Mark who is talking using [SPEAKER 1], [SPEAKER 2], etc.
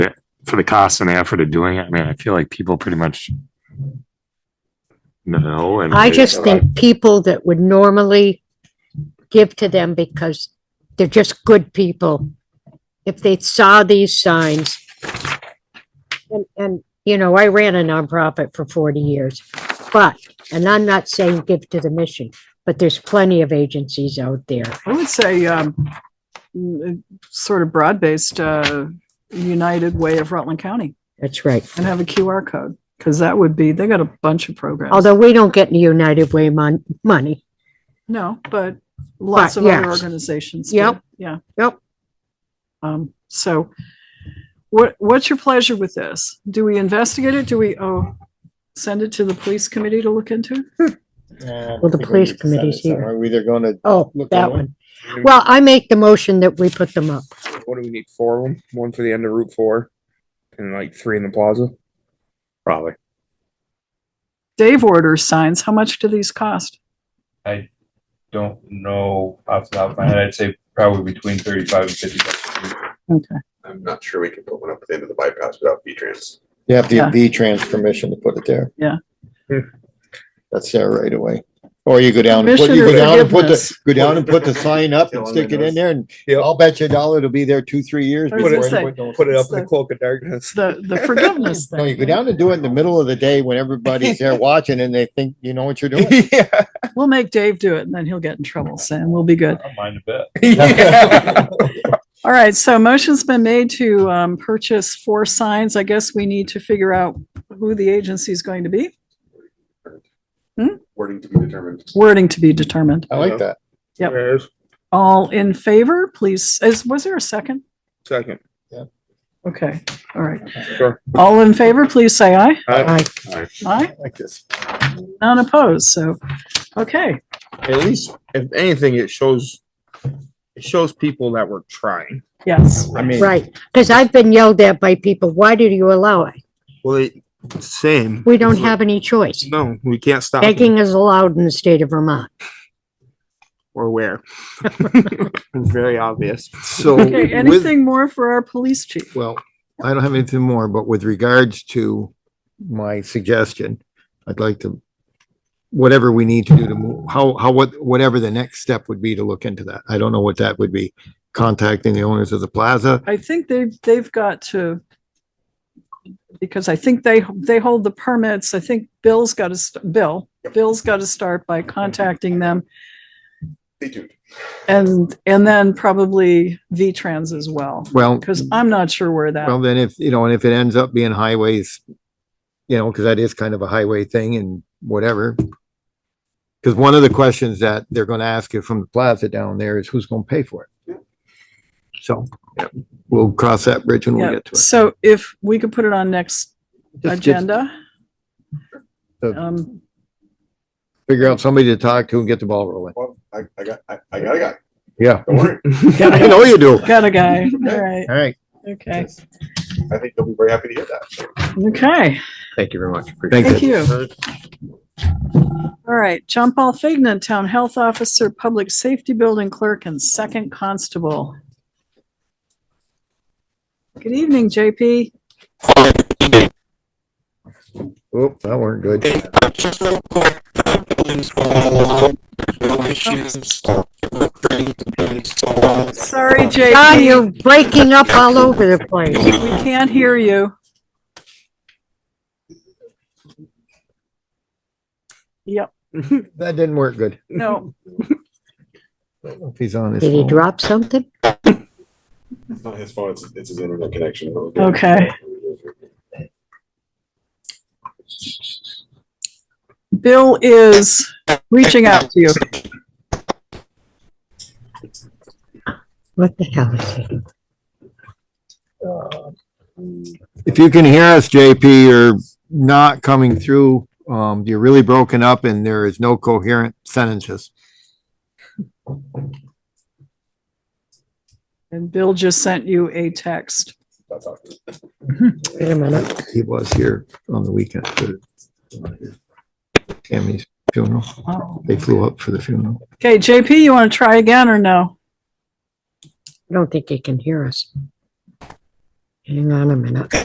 [SPEAKER 1] for the cost and the effort of doing it, I mean, I feel like people pretty much know and.
[SPEAKER 2] I just think people that would normally give to them because they're just good people. If they saw these signs. And, and, you know, I ran a nonprofit for forty years, but, and I'm not saying give to the mission, but there's plenty of agencies out there.
[SPEAKER 3] I would say, um, mm, sort of broad-based, uh, United Way of Rutland County
[SPEAKER 2] That's right.
[SPEAKER 3] and have a QR code. Cause that would be, they got a bunch of programs.
[SPEAKER 2] Although we don't get any United Way mon- money.
[SPEAKER 3] No, but lots
[SPEAKER 2] But,
[SPEAKER 3] of other
[SPEAKER 2] yes.
[SPEAKER 3] organizations. do.
[SPEAKER 2] Yep.
[SPEAKER 3] Yeah.
[SPEAKER 2] Yep.
[SPEAKER 3] Um, so what, what's your pleasure with this? Do we investigate it? Do we, oh, send it to the police committee to look into?
[SPEAKER 2] Well, the police committee's here.
[SPEAKER 4] Are we either gonna,
[SPEAKER 2] Oh,
[SPEAKER 4] Look
[SPEAKER 2] that
[SPEAKER 4] at
[SPEAKER 2] one. Well, I make the motion that we put them up.
[SPEAKER 5] What do we need? Four of them? One for the end of Route Four, and like three in the plaza. Probably.
[SPEAKER 3] Dave orders signs. How much do these cost?
[SPEAKER 6] don't know off the top of my head. I'd say probably between thirty-five and fifty bucks.
[SPEAKER 3] Okay.
[SPEAKER 7] I'm not sure we can put one up at the end of the bypass without V-Trans.
[SPEAKER 4] you have
[SPEAKER 3] Yeah.
[SPEAKER 4] the V-Trans permission to put it there.
[SPEAKER 3] Yeah.
[SPEAKER 5] Yeah.
[SPEAKER 4] That's there right away. Or you go down, and put-
[SPEAKER 3] Permission
[SPEAKER 4] you
[SPEAKER 3] or
[SPEAKER 4] go down and put the,
[SPEAKER 3] forgiveness?
[SPEAKER 4] go down and put the sign up and stick it in there and I'll bet you a dollar it'll be there two, three years.
[SPEAKER 3] I was
[SPEAKER 4] before
[SPEAKER 3] gonna say,
[SPEAKER 4] anyone knows.
[SPEAKER 5] Put it up
[SPEAKER 3] It's
[SPEAKER 5] in the
[SPEAKER 3] the-
[SPEAKER 5] cloak of darkness.
[SPEAKER 3] The, the forgiveness thing.
[SPEAKER 4] No, you go down and do it in the middle of the day when everybody's there watching and they think you know what you're doing.
[SPEAKER 5] yeah.
[SPEAKER 3] We'll make Dave do it and then he'll get in trouble, Sam. We'll be
[SPEAKER 6] I
[SPEAKER 3] good.
[SPEAKER 6] don't mind a bit.
[SPEAKER 5] yeah.
[SPEAKER 3] All right, so a motion's been made to um, purchase four signs. I guess we need to figure out who the agency is going to be. Hmm?
[SPEAKER 7] Wording to be determined.
[SPEAKER 3] Wording to be determined.
[SPEAKER 4] I like that.
[SPEAKER 3] Yep.
[SPEAKER 5] There it is.
[SPEAKER 3] All in favor, please, is, was there a second?
[SPEAKER 5] Second.
[SPEAKER 3] Okay, all right.
[SPEAKER 5] Sure.
[SPEAKER 3] All in favor, please say aye.
[SPEAKER 5] Uh,
[SPEAKER 2] I,
[SPEAKER 3] Aye,
[SPEAKER 4] I like this.
[SPEAKER 3] none opposed, so, okay.
[SPEAKER 5] at least, if anything, it shows it shows people that we're trying.
[SPEAKER 3] Yes,
[SPEAKER 5] I mean,
[SPEAKER 2] right, because I've been yelled at by people, why did you allow it?
[SPEAKER 5] Well, it, same.
[SPEAKER 2] We don't have any choice.
[SPEAKER 5] No, we can't stop. them.
[SPEAKER 2] Begging is allowed in the state of Vermont.
[SPEAKER 5] or where. Very obvious. So
[SPEAKER 3] okay, anything more for our police chief?
[SPEAKER 4] Well, I don't have anything more, but with regards to my suggestion, I'd like to, whatever we need to do to move, how, how, what, whatever the next step would be to look into that. I don't know what that would be. Contacting the owners of the plaza.
[SPEAKER 3] I think they've, they've got to, because I think they, they hold the permits. I think Bill's got to, Bill, Bill's got to start by contacting them
[SPEAKER 7] Stay tuned.
[SPEAKER 3] and, and then probably V-Trans as well,
[SPEAKER 4] Well,
[SPEAKER 3] because I'm not sure where
[SPEAKER 4] well,
[SPEAKER 3] that,
[SPEAKER 4] then if, you know, and if it ends up being highways, you know, because that is kind of a highway thing and whatever. Because one of the questions that they're going to ask you from the plaza down there is who's going to pay for it? So we'll cross that bridge when we
[SPEAKER 3] yeah.
[SPEAKER 4] get to it.
[SPEAKER 3] So if we could put it on next
[SPEAKER 4] Just- just-
[SPEAKER 3] agenda.
[SPEAKER 4] So-
[SPEAKER 3] Um,
[SPEAKER 4] figure out somebody to talk to and get the ball rolling.
[SPEAKER 7] Well, I, I got, I, I got a guy.
[SPEAKER 4] Yeah.
[SPEAKER 7] Don't worry.
[SPEAKER 4] I know you do.
[SPEAKER 3] got a guy, all right,
[SPEAKER 4] All right.
[SPEAKER 3] okay,
[SPEAKER 7] I think they'll be very happy to hear that.
[SPEAKER 3] okay,
[SPEAKER 5] Thank you very much.
[SPEAKER 3] thank you. All right, John Paul Fignan, Town Health Officer, Public Safety Building Clerk, and Second Constable. Good evening, JP.
[SPEAKER 4] Oop, that weren't good.
[SPEAKER 8] just real quick, the building's going along, there's no issues, so it looked pretty, pretty solid.
[SPEAKER 3] Sorry,
[SPEAKER 2] John,
[SPEAKER 3] JP,
[SPEAKER 2] you're breaking up all over the place.
[SPEAKER 3] we can't hear you. Yep,
[SPEAKER 4] That didn't work good.
[SPEAKER 3] no,
[SPEAKER 4] I don't know If he's on his
[SPEAKER 2] Did he
[SPEAKER 4] phone.
[SPEAKER 2] drop something?
[SPEAKER 7] It's not his phone, it's, it's his internet connection.
[SPEAKER 3] okay. Bill is reaching out to you.
[SPEAKER 2] What the hell is it?
[SPEAKER 4] If you can hear us, JP, you're not coming through. Um, you're really broken up and there is no coherent sentences.
[SPEAKER 3] And Bill just sent you a text.
[SPEAKER 7] That's awesome.
[SPEAKER 2] Wait a minute.
[SPEAKER 4] He was here on the weekend. for Tammy's funeral.
[SPEAKER 3] Oh.
[SPEAKER 4] They flew up for the funeral.
[SPEAKER 3] Okay, JP, you want to try again or no?
[SPEAKER 2] I don't think he can hear us. Hang on a minute.